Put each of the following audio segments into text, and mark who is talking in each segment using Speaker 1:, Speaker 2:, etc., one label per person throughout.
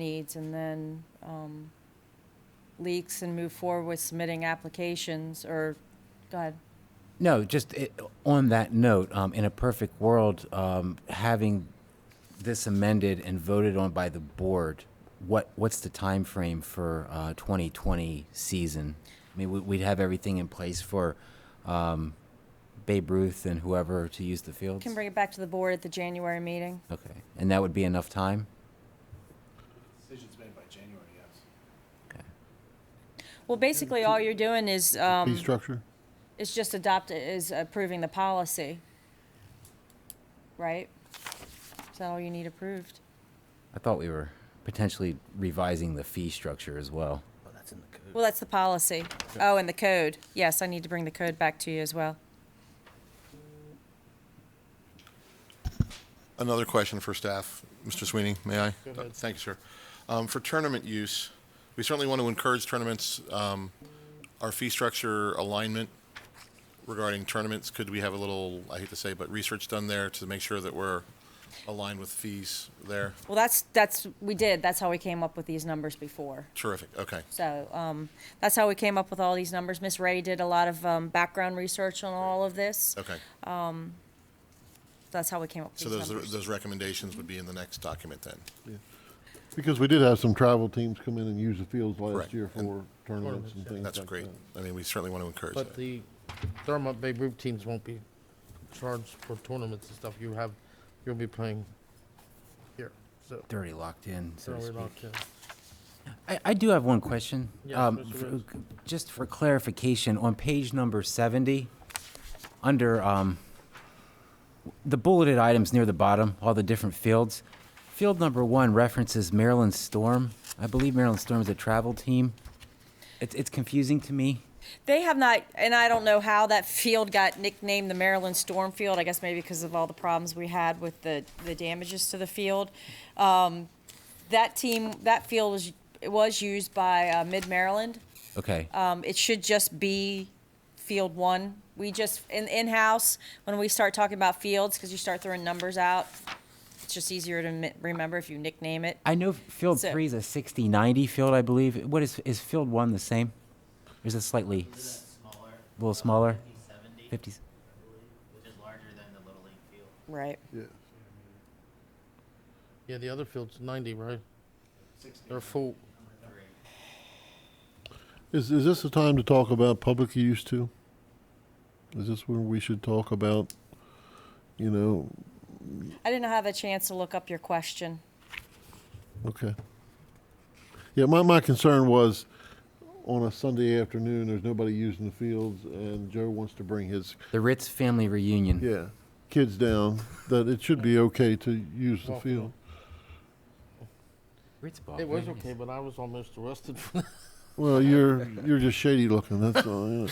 Speaker 1: needs and then um, leaks and move forward with submitting applications or, go ahead.
Speaker 2: No, just it, on that note, um, in a perfect world, um, having this amended and voted on by the board, what what's the time frame for uh, 2020 season? I mean, we, we'd have everything in place for um, Babe Ruth and whoever to use the fields.
Speaker 1: Can bring it back to the board at the January meeting.
Speaker 2: okay, and that would be enough time.
Speaker 3: Decision's made by January, yes.
Speaker 1: Well, basically, all you're doing is,
Speaker 4: Fee
Speaker 1: um,
Speaker 4: structure?
Speaker 1: is just adopt, is approving the policy. Right? Is that all you need approved?
Speaker 2: I thought we were potentially revising the fee structure as well.
Speaker 3: Well, that's in the code.
Speaker 1: Well, that's the policy. Oh, and the code. Yes, I need to bring the code back to you as well.
Speaker 5: Another question for staff, Mr. Sweeney, may I? Thank you, sir. Um, For tournament use, we certainly want to encourage tournaments. Um, Our fee structure alignment regarding tournaments, could we have a little, I hate to say, but research done there to make sure that we're aligned with fees there?
Speaker 1: Well, that's, that's, we did. That's how we came up with these numbers before.
Speaker 5: Terrific, okay.
Speaker 1: So um, that's how we came up with all these numbers. Miss Ray did a lot of um, background research on all of this.
Speaker 5: Okay,
Speaker 1: That's how we came up with
Speaker 5: so
Speaker 1: these
Speaker 5: those,
Speaker 1: numbers.
Speaker 5: those recommendations would be in the next document then?
Speaker 4: Because we did have some travel teams come in and use the fields last
Speaker 5: Correct.
Speaker 4: year
Speaker 5: And-
Speaker 4: for tournaments and things like that.
Speaker 5: That's great. I mean, we certainly want to encourage
Speaker 6: But
Speaker 5: that.
Speaker 6: the Thurmont Bay Roof teams won't be charged for tournaments and stuff. You have, you'll be playing here, so.
Speaker 2: They're already locked in, so
Speaker 6: so
Speaker 2: to
Speaker 6: we're
Speaker 2: speak.
Speaker 6: locked in.
Speaker 2: I, I do have one question.
Speaker 6: Yes,
Speaker 2: Um,
Speaker 6: Mr.
Speaker 2: for-
Speaker 6: Rhodes.
Speaker 2: Just for clarification, on page number 70, under um, the bulleted items near the bottom, all the different fields, field number one references Maryland Storm. I believe Maryland Storm is a travel team. It's, it's confusing to me.
Speaker 1: They have not, and I don't know how that field got nicknamed the Maryland Storm Field. I guess maybe because of all the problems we had with the, the damages to the field. Um, that team, that field was, it was used by uh, Mid Maryland.
Speaker 2: Okay.
Speaker 1: Um, it should just be field one. We just, in, in-house, when we start talking about fields, because you start throwing numbers out, it's just easier to mi- remember if you nickname it.
Speaker 2: I know field
Speaker 1: so-
Speaker 2: three is a 60 90 field, I believe. What is, is field one the same? Or is it slightly s-
Speaker 7: smaller.
Speaker 2: a little smaller?
Speaker 7: 50,
Speaker 2: 50s?
Speaker 7: which is larger than the Little League field.
Speaker 1: Right.
Speaker 4: Yeah.
Speaker 6: Yeah, the other field's ninety, right? They're full.
Speaker 4: Is, is this the time to talk about public use too? Is this where we should talk about, you know,
Speaker 1: I didn't have a chance to look up your question.
Speaker 4: okay. Yeah, my, my concern was on a Sunday afternoon, there's nobody using the fields and Joe wants to bring his,
Speaker 2: The Ritz family reunion.
Speaker 4: yeah, kids down, that it should be okay to use the
Speaker 6: Walk
Speaker 4: field.
Speaker 2: Ritz ball.
Speaker 4: Oh,
Speaker 6: It was
Speaker 2: where is
Speaker 6: okay, but I was almost arrested for
Speaker 4: Well, you're, you're just shady looking, that's all, yeah.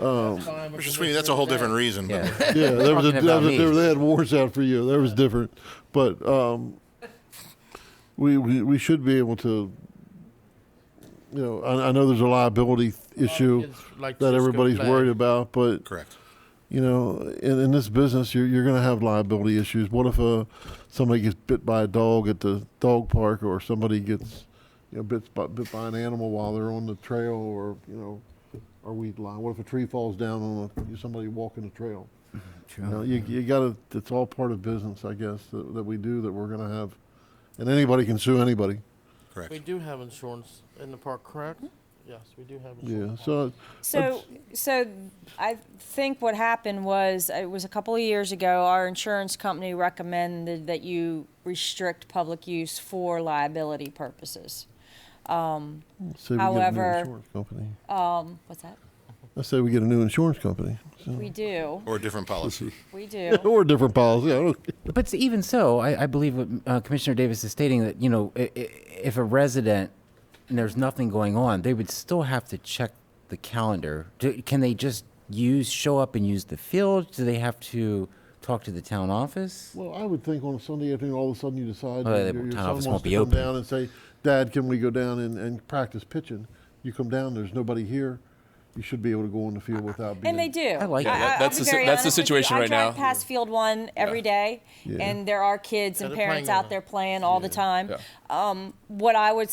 Speaker 4: Oh.
Speaker 6: that time.
Speaker 5: Mr. Sweeney, that's a whole different reason, but
Speaker 2: Yeah.
Speaker 4: Yeah, there was a,
Speaker 2: Talking
Speaker 4: there
Speaker 2: about
Speaker 4: was a, there,
Speaker 2: me.
Speaker 4: they had wars out for you. That was different, but um, we, we we should be able to. You know, I, I know there's a liability issue that everybody's worried about, but
Speaker 5: correct.
Speaker 4: you know, in, in this business, you're you're going to have liability issues. What if uh, somebody gets bit by a dog at the dog park, or somebody gets you know bit by, bit by an animal while they're on the trail, or you know, or weed line? What if a tree falls down on a, somebody walking the trail?
Speaker 2: True.
Speaker 4: You know, you, you gotta, it's all part of business, I guess, that, that we do, that we're gonna have, and anybody can sue anybody.
Speaker 5: Correct.
Speaker 6: We do have insurance in the park, correct? Yes, we do have
Speaker 4: Mm-hmm. Yeah,
Speaker 6: insurance.
Speaker 4: so,
Speaker 1: So, so I think what happened was, uh, it was a couple of years ago, our insurance company recommended that you restrict public use for liability purposes.
Speaker 4: say we get a new
Speaker 1: However-
Speaker 4: insurance company.
Speaker 1: Um, what's that?
Speaker 4: I say we get a new insurance company. so-
Speaker 1: We do,
Speaker 5: Or a different policy.
Speaker 1: we do.
Speaker 4: Or a different policy, I don't,
Speaker 2: But s- even so, I, I believe what uh, Commissioner Davis is stating that you know, i- i- if a resident and there's nothing going on, they would still have to check the calendar. Do, can they just use show up and use the field? Do they have to talk to the town office?
Speaker 4: well, I would think on a Sunday afternoon, all of a sudden you decide.
Speaker 2: Oh,
Speaker 4: that
Speaker 2: the
Speaker 4: your-
Speaker 2: town
Speaker 4: your son
Speaker 2: office won't
Speaker 4: wants to
Speaker 2: be
Speaker 4: come
Speaker 2: open.
Speaker 4: Down and say, Dad, can we go down and, and practice pitching? You come down, there's nobody here, you should be able to go on the field without being.
Speaker 1: And they do.
Speaker 2: I like that.
Speaker 1: I'll
Speaker 8: That's
Speaker 1: be
Speaker 8: the si-
Speaker 1: very
Speaker 8: that's the
Speaker 1: honest with you.
Speaker 8: situation right
Speaker 1: I drive
Speaker 8: now.
Speaker 1: past Field One every day,
Speaker 4: Yeah.
Speaker 1: and there are kids
Speaker 6: Yeah,
Speaker 1: and
Speaker 6: they're
Speaker 1: parents
Speaker 6: playing on
Speaker 1: out
Speaker 6: it.
Speaker 1: there playing all the time.
Speaker 4: Yeah.
Speaker 1: Um, what I would